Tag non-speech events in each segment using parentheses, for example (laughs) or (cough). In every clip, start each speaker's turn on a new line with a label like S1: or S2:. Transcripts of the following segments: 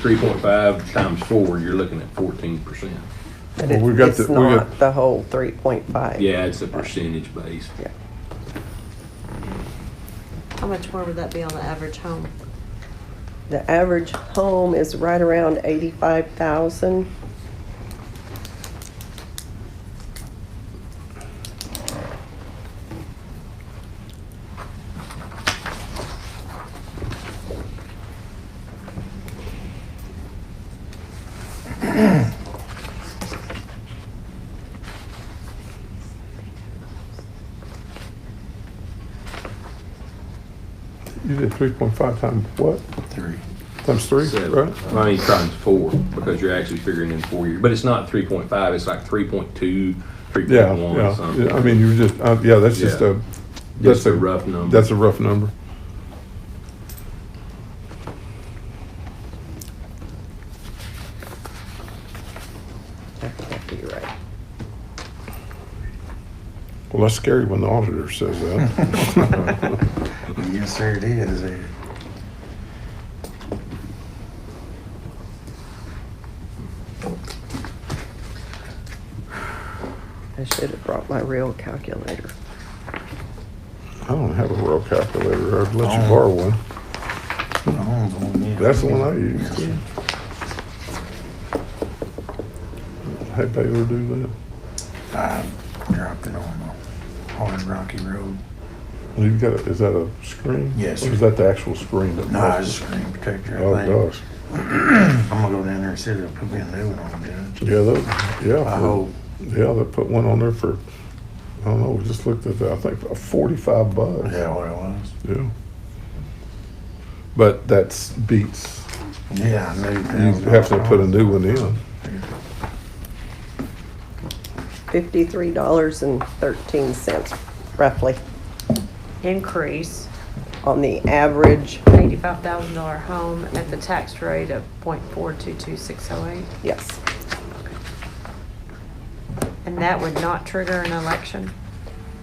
S1: three point five times four, you're looking at fourteen percent.
S2: But
S3: Well,
S2: it-
S3: we've got
S2: it's
S3: the- we got-
S2: not the whole three point five.
S1: Yeah, it's a percentage base.
S2: Yeah.
S4: How much more would that be on the average home?
S2: The average home is right around eighty-five thousand.
S3: You did three point five times what?
S1: Three.
S3: Times three,
S1: Seven,
S3: right?
S1: I mean, times four, because you're actually figuring in four years, but it's not three point five, it's like three point two, three
S3: Yeah,
S1: point one or
S3: yeah,
S1: something.
S3: yeah, I mean, you just, uh, yeah, that's just
S1: Yeah.
S3: a,
S1: Just
S3: that's
S1: a
S3: a.
S1: rough number.
S3: That's a rough number.
S2: I think that could be right.
S3: Well, that's scary when the auditor says that.
S1: (laughs)
S5: (laughs) Yes, sir, it is. there.
S2: I should have brought my real calculator.
S3: I don't have a real calculator. I'd let you
S5: Oh.
S3: borrow one.
S5: I'm going in.
S3: That's the one I use. Hey, Baylor, do
S5: I dropped it on the hard rocky road.
S3: Oh, that. You've got, a- is that a screen?
S5: Yes,
S3: Or
S5: sir.
S3: is that the actual screen? that-
S5: No, it's a screen protector. I think.
S3: Oh, gosh.
S5: I'm gonna go down there and see if they'll put me a new one on, Judge.
S3: Yeah, that, yeah.
S5: I
S3: for-
S5: hope.
S3: Yeah, they put one on there for, I don't know, we just looked at that, I think for forty-five bucks.
S5: Is that what it was?
S3: Yeah. But that's beats,
S5: Yeah, I knew.
S3: you have to put a new one in.
S2: Fifty-three dollars and thirteen cents roughly
S6: increase,
S2: on the average,
S6: eighty-five thousand dollar home at the tax rate of point four two two six oh eight,
S2: yes.
S6: and that would not trigger an election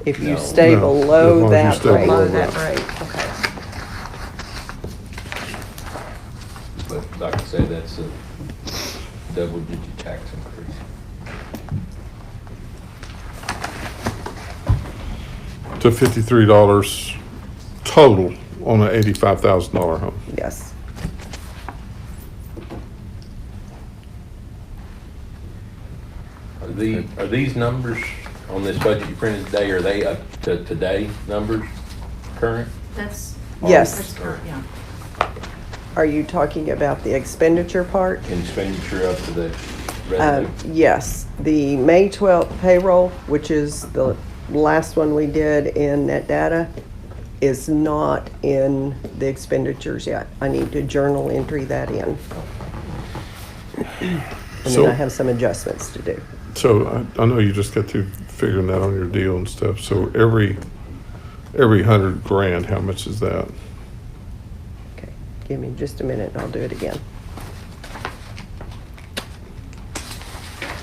S2: If you stay
S3: No, as long as
S2: below
S3: you
S2: that
S3: stay below
S6: below
S2: rate.
S6: that
S3: that.
S6: rate, okay.
S1: But like I said, that's a double digit tax increase.
S3: To fifty-three dollars total on an eighty-five thousand dollar home.
S2: Yes.
S1: Are the, are these numbers on this budget you printed today, are they up to today numbers, current?
S7: That's.
S2: Yes.
S7: That's current, yeah.
S2: Are you talking about the expenditure part?
S1: And expenditure up to the
S2: Uh,
S1: revenue?
S2: Yes, the May 12th payroll, which is the last one we did in net data, is not in the expenditures yet. I need to journal entry that in. And then
S3: So-
S2: I have some adjustments to do.
S3: So I, I know you just got to figuring that on your deal and stuff, so every, every hundred grand, how much is that?
S2: Okay, give me just a minute and I'll do it again.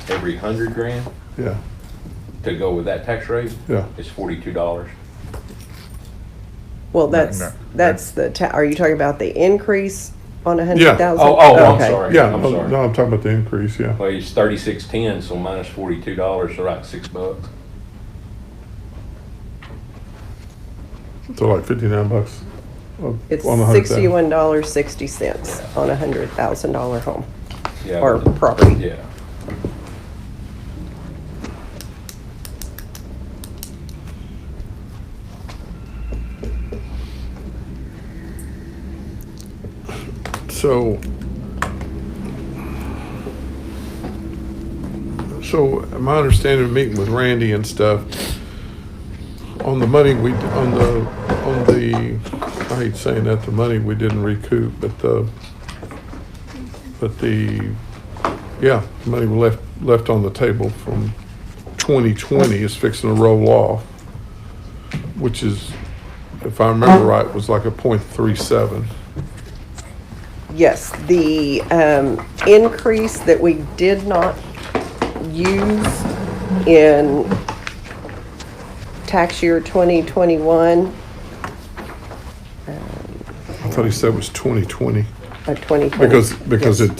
S1: Every hundred grand
S3: Yeah,
S1: to go with that tax rate
S3: yeah.
S1: is forty-two dollars.
S2: Well, that's,
S5: no.
S2: that's the, ta- are you talking about the increase on 100,000?
S3: Yeah.
S1: Oh, oh, I'm
S2: Okay.
S1: sorry.
S3: Yeah,
S1: I'm
S3: no,
S1: sorry.
S3: no, I'm talking about the increase, yeah.
S1: Well, it's thirty-six ten, so minus forty-two dollars, so like six bucks.
S3: So like fifty-nine bucks. on-
S2: It's
S3: on a hundred thousand.
S2: sixty-one dollars, sixty cents on a hundred thousand dollar home
S1: Yeah,
S2: or
S1: but-
S2: property.
S1: Yeah.
S3: So. So my understanding of meeting with Randy and stuff, on the money we, on the, on the, I hate saying that, the money we didn't recoup, but the, but the, yeah, the money we left, left on the table from twenty twenty is fixing to roll off, which is, if I remember right, was like a point three seven.
S2: Yes, the um, increase that we did not use in tax year twenty twenty-one.
S3: I thought he said it was 2020.
S2: a 2020.
S3: Because, because
S2: Yes.
S3: it